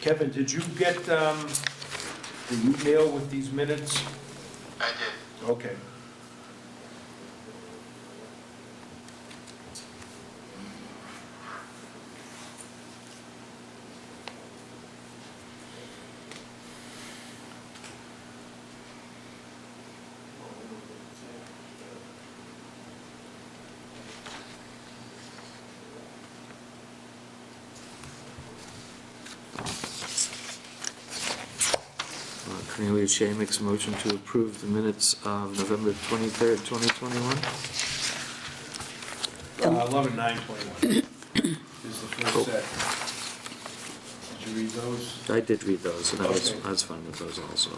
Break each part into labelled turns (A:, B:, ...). A: Kevin, did you get um, the email with these minutes?
B: I did.
A: Okay.
C: Uh, Cornelia Shea makes a motion to approve the minutes of November 23rd, 2021.
A: Uh, 11, 9, 21 is the
C: Cool.
A: first set. Did you read those?
C: I did read those, and I was,
A: Okay.
C: I was fine with those also.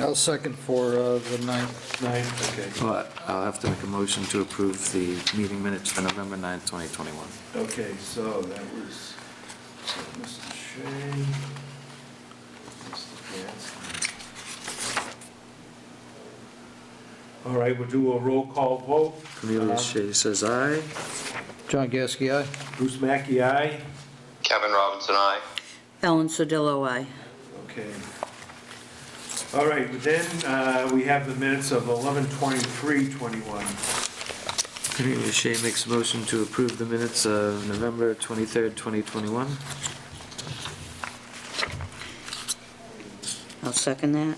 D: I'll second for uh, the ninth.
A: Nine, okay,
C: But I'll have to make a motion to approve the meeting minutes for November 9th, 2021.
A: okay, so that was so Mr. Shea. Mr. Gadsden. All right, we'll do a roll call vote.
C: Cornelia
D: Uh-huh.
A: Uh,
C: Shea says aye.
D: John Gasky, aye?
A: Bruce Mackey, aye.
B: Kevin Robinson, I.
E: Ellen Sodillo, aye.
A: Okay. All right, then uh, we have the minutes of 11:23:21.
C: Cornelia Shea makes a motion to approve the minutes of November 23rd, 2021.
E: I'll second that.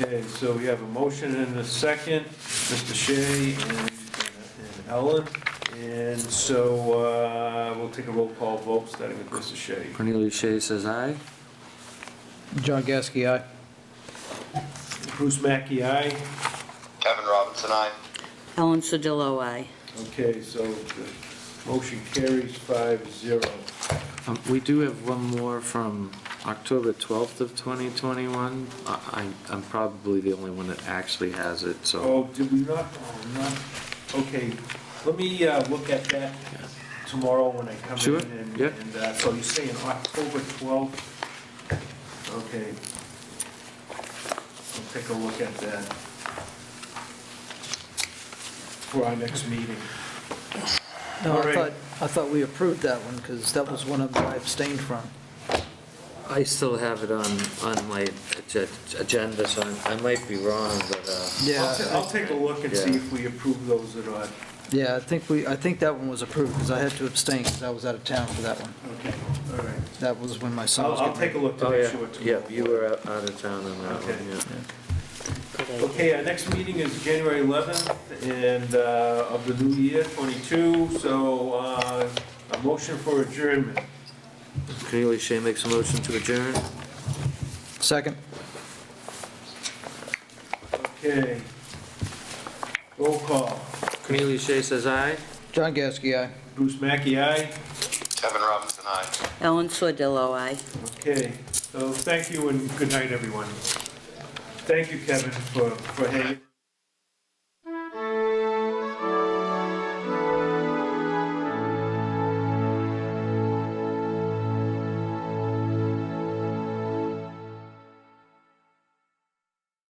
A: Okay, so we have a motion and a second, Mr. Shea and and Ellen. And so uh, we'll take a roll call vote, starting with Mr. Shea.
C: Cornelia Shea says aye.
D: John Gasky, aye.
A: Bruce Mackey, aye.
B: Kevin Robinson, I.
E: Ellen Sodillo, aye.
A: Okay, so the motion carries five zero.
C: Um, We do have one more from October 12th of 2021. I- I- I'm probably the only one that actually has it, so
A: Oh, did we not, oh, not, okay, let me uh, look at that tomorrow when I come in.
C: Sure,
A: and-
C: yeah.
A: And uh, so you're saying October 12th? Okay. I'll take a look at that for our next meeting.
D: No,
A: All
D: I
A: right.
D: thought, I thought we approved that one, because that was one of them I abstained from.
C: I still have it on, on my ag- agenda, so I'm- I might be wrong, but, uh,
A: I'll ta- I'll
D: Yeah,
A: take a look and see
C: Yeah.
A: if we approve those or not.
D: yeah, I think we, I think that one was approved, because I had to abstain, because I was out of town for that one.
A: Okay, all right.
D: That was when my son
A: I'll,
D: was
A: I'll
D: getting...
A: take a look to
C: oh,
A: make
C: yeah,
A: sure. tomorrow.
C: yeah, you were out out of town on that
A: Okay.
C: one, yeah.
A: Okay, our next meeting is January 11th and uh, of the new year, 22, so uh, a motion for adjournment.
C: Cornelia Shea makes a motion to adjourn.
D: Second.
A: Okay. Roll call.
C: Cornelia Shea says aye.
D: John Gasky, aye.
A: Bruce Mackey, aye.
B: Kevin Robinson, I.
E: Ellen Sodillo, aye.
A: Okay, so thank you and good night, everyone. Thank you, Kevin, for, for hanging.